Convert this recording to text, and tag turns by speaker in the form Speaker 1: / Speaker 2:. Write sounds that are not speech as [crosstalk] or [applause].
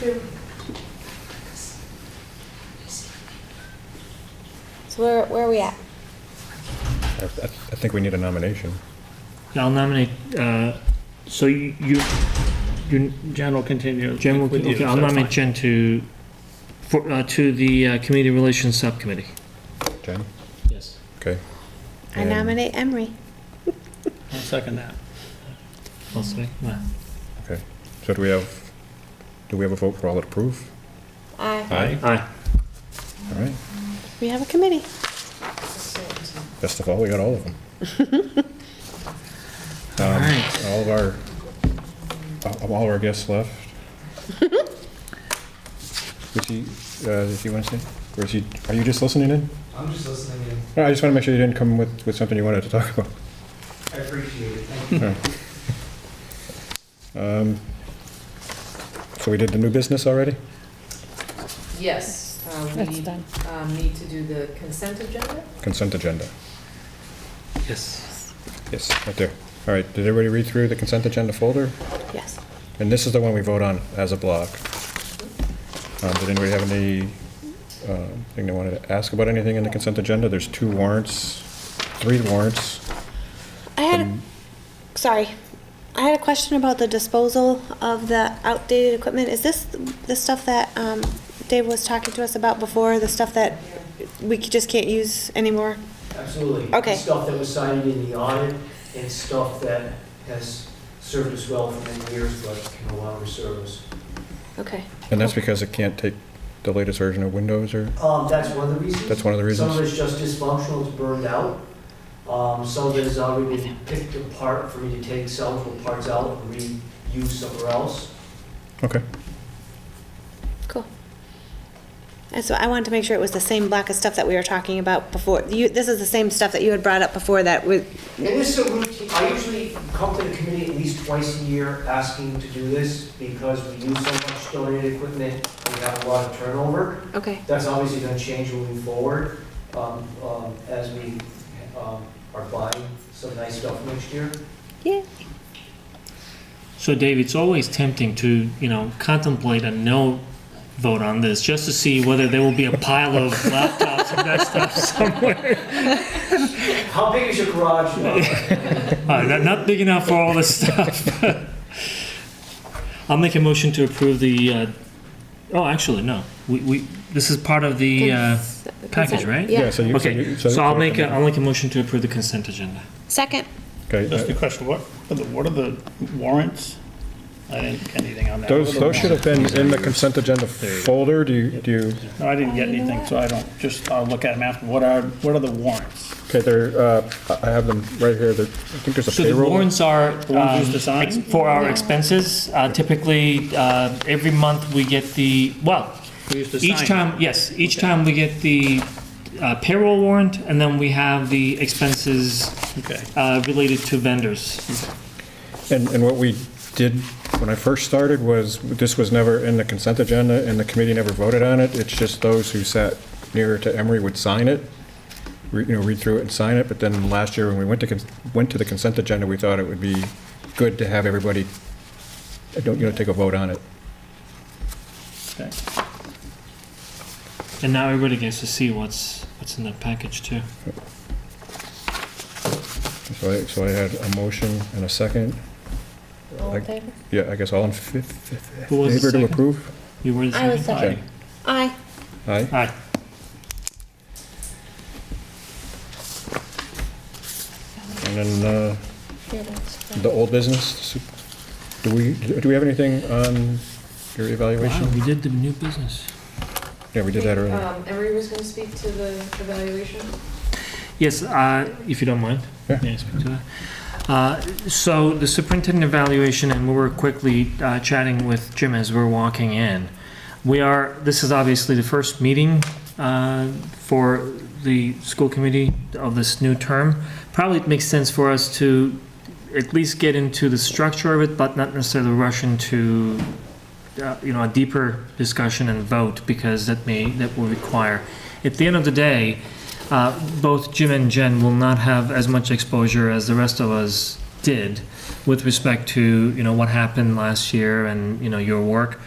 Speaker 1: two.
Speaker 2: So where, where are we at?
Speaker 3: I, I I think we need a nomination.
Speaker 4: I'll nominate, uh, so you, you- you,
Speaker 5: Jen will continue.
Speaker 4: Jen, will-
Speaker 5: with you,
Speaker 4: okay, I'll
Speaker 5: so that's
Speaker 4: nominate
Speaker 5: fine.
Speaker 4: Jen to, for, uh, to the uh, Community Relations Subcommittee.
Speaker 3: Jen?
Speaker 5: Yes,
Speaker 3: Okay.
Speaker 2: I
Speaker 3: And-
Speaker 2: nominate Emery.
Speaker 5: I'll second that.
Speaker 4: I'll say. Well,
Speaker 3: Okay. So do we have, do we have a vote for all that approve?
Speaker 2: Aye.
Speaker 4: Aye.
Speaker 3: All right.
Speaker 2: We have a committee.
Speaker 3: Best of all, we got all of
Speaker 4: [laughs]
Speaker 3: them. Um,
Speaker 4: All right.
Speaker 3: All of our, all- all of our guests
Speaker 4: [laughs]
Speaker 3: left. Was he, uh, is he Wednesday? Or is he, are you just listening in?
Speaker 6: I'm just listening in.
Speaker 3: No, I just want to make sure you didn't come with, with something you wanted to talk
Speaker 4: [laughs]
Speaker 3: about.
Speaker 6: I appreciate it. Thank you.
Speaker 3: All right. Um, So we did the new business already?
Speaker 1: Yes, uh,
Speaker 7: That's
Speaker 1: we
Speaker 7: done.
Speaker 1: um, need to do the consent agenda.
Speaker 3: Consent agenda.
Speaker 4: Yes.
Speaker 3: Yes, right there. All right, did everybody read through the consent agenda folder?
Speaker 2: Yes.
Speaker 3: And this is the one we vote on as a block. Um, Did anybody have any, uh, thing they wanted to ask about anything in the consent agenda? There's two warrants, three warrants.
Speaker 2: I had,
Speaker 3: Um,
Speaker 2: a sorry, I had a question about the disposal of the outdated equipment. Is this the stuff that um, Dave was talking to us about before, the stuff that we c- just can't use anymore?
Speaker 6: Absolutely.
Speaker 2: Okay.
Speaker 6: Stuff that was cited in the audit and stuff that has served us well for many years but can no longer serve us.
Speaker 2: Okay.
Speaker 3: And that's because it can't take the latest version of Windows or,
Speaker 6: Um, that's one of the reasons.
Speaker 3: that's one of the
Speaker 6: Some of
Speaker 3: reasons?
Speaker 6: it's just dysfunctional, it's burned out. Um, some of it has already been picked apart for me to take several parts out and reuse somewhere else.
Speaker 3: Okay,
Speaker 2: And so I wanted to make sure it was the same block of stuff that we were talking about before. You, this is the same stuff that you had brought up before that was,
Speaker 6: And this is a routine, I usually come to the committee at least twice a year asking to do this because we use so much donated equipment, we have a lot of turnover.
Speaker 2: okay,
Speaker 6: That's obviously going to change moving forward um, um, as we um, are buying some nice stuff next year.
Speaker 2: yeah.
Speaker 4: So Dave, it's always tempting to, you know, contemplate a no vote on this, just to see whether there will be a pile
Speaker 5: [laughs]
Speaker 4: of laptops and desktops somewhere.
Speaker 6: How big is your garage? now?
Speaker 4: Uh, not, not big enough for all this [laughs] stuff. I'll make a motion to approve the, uh, oh, actually, no. We, we, this is part of the, uh,
Speaker 2: Cons-
Speaker 4: package,
Speaker 2: consent.
Speaker 4: right?
Speaker 3: yeah,
Speaker 2: Yeah.
Speaker 3: so you.
Speaker 4: okay,
Speaker 3: you-
Speaker 4: so I'll make, a, I'll make a motion to approve the consent agenda.
Speaker 2: Second,
Speaker 3: Okay,
Speaker 5: Just a
Speaker 3: uh,
Speaker 5: question, what, are the- what are the warrants? I didn't get anything on that.
Speaker 3: those,
Speaker 5: What are the
Speaker 3: those should have been in the consent agenda
Speaker 5: you go.
Speaker 3: folder, do you, do you?
Speaker 5: warrants? No, I didn't get anything, so I don't, just, I'll look at them after. What are, what are the warrants?
Speaker 3: Okay, there, uh, I I have them right here, there, I think there's a
Speaker 4: So the
Speaker 3: payroll.
Speaker 4: warrants are
Speaker 5: ones used
Speaker 4: um,
Speaker 5: to sign?
Speaker 4: ex- for our expenses. Uh, Typically, uh, every month we get the, well,
Speaker 5: We used to
Speaker 4: each
Speaker 5: sign.
Speaker 4: time, yes, each time we get the uh, payroll warrant, and then we have the expenses
Speaker 5: Okay.
Speaker 4: uh, related to vendors.
Speaker 3: And, and what we did when I first started was, this was never in the consent agenda, and the committee never voted on it. It's just those who sat nearer to Emery would sign it, re- you know, read through it and sign it. But then last year, when we went to, cons- went to the consent agenda, we thought it would be good to have everybody, uh, don't, you know, take a vote on it.
Speaker 5: Okay.
Speaker 4: And now everybody gets to see what's, what's in that package too.
Speaker 3: So I, so I had a motion and a second.
Speaker 7: All in
Speaker 3: Like-
Speaker 7: favor?
Speaker 3: Yeah, I guess all in fa- fa-
Speaker 4: Who was the
Speaker 3: favor to
Speaker 4: second?
Speaker 3: approve?
Speaker 4: You were the
Speaker 7: I was
Speaker 4: second?
Speaker 3: Okay.
Speaker 7: second.
Speaker 2: aye.
Speaker 3: Aye.
Speaker 4: Aye.
Speaker 3: And then, uh,
Speaker 7: Yeah, that's
Speaker 3: The
Speaker 7: right.
Speaker 3: old business, do we, do we have anything on your
Speaker 4: Wow,
Speaker 3: evaluation?
Speaker 4: we did the new business.
Speaker 3: Yeah, we did that earlier.
Speaker 1: Um, Emery was going to speak to the evaluation.
Speaker 4: Yes, uh, if you don't mind.
Speaker 3: Yeah.
Speaker 4: May I speak to that? Uh, So the superintendent evaluation, and we were quickly uh, chatting with Jim as we we're walking in. We are, this is obviously the first meeting uh, for the school committee of this new term. Probably it makes sense for us to at least get into the structure of it, but not necessarily rush into, uh, you know, a deeper discussion and vote, because that may, that will require. At the end of the day, uh, both Jim and Jen will not have as much exposure as the rest of us did with respect to, you know, what happened last year and, you know, your work.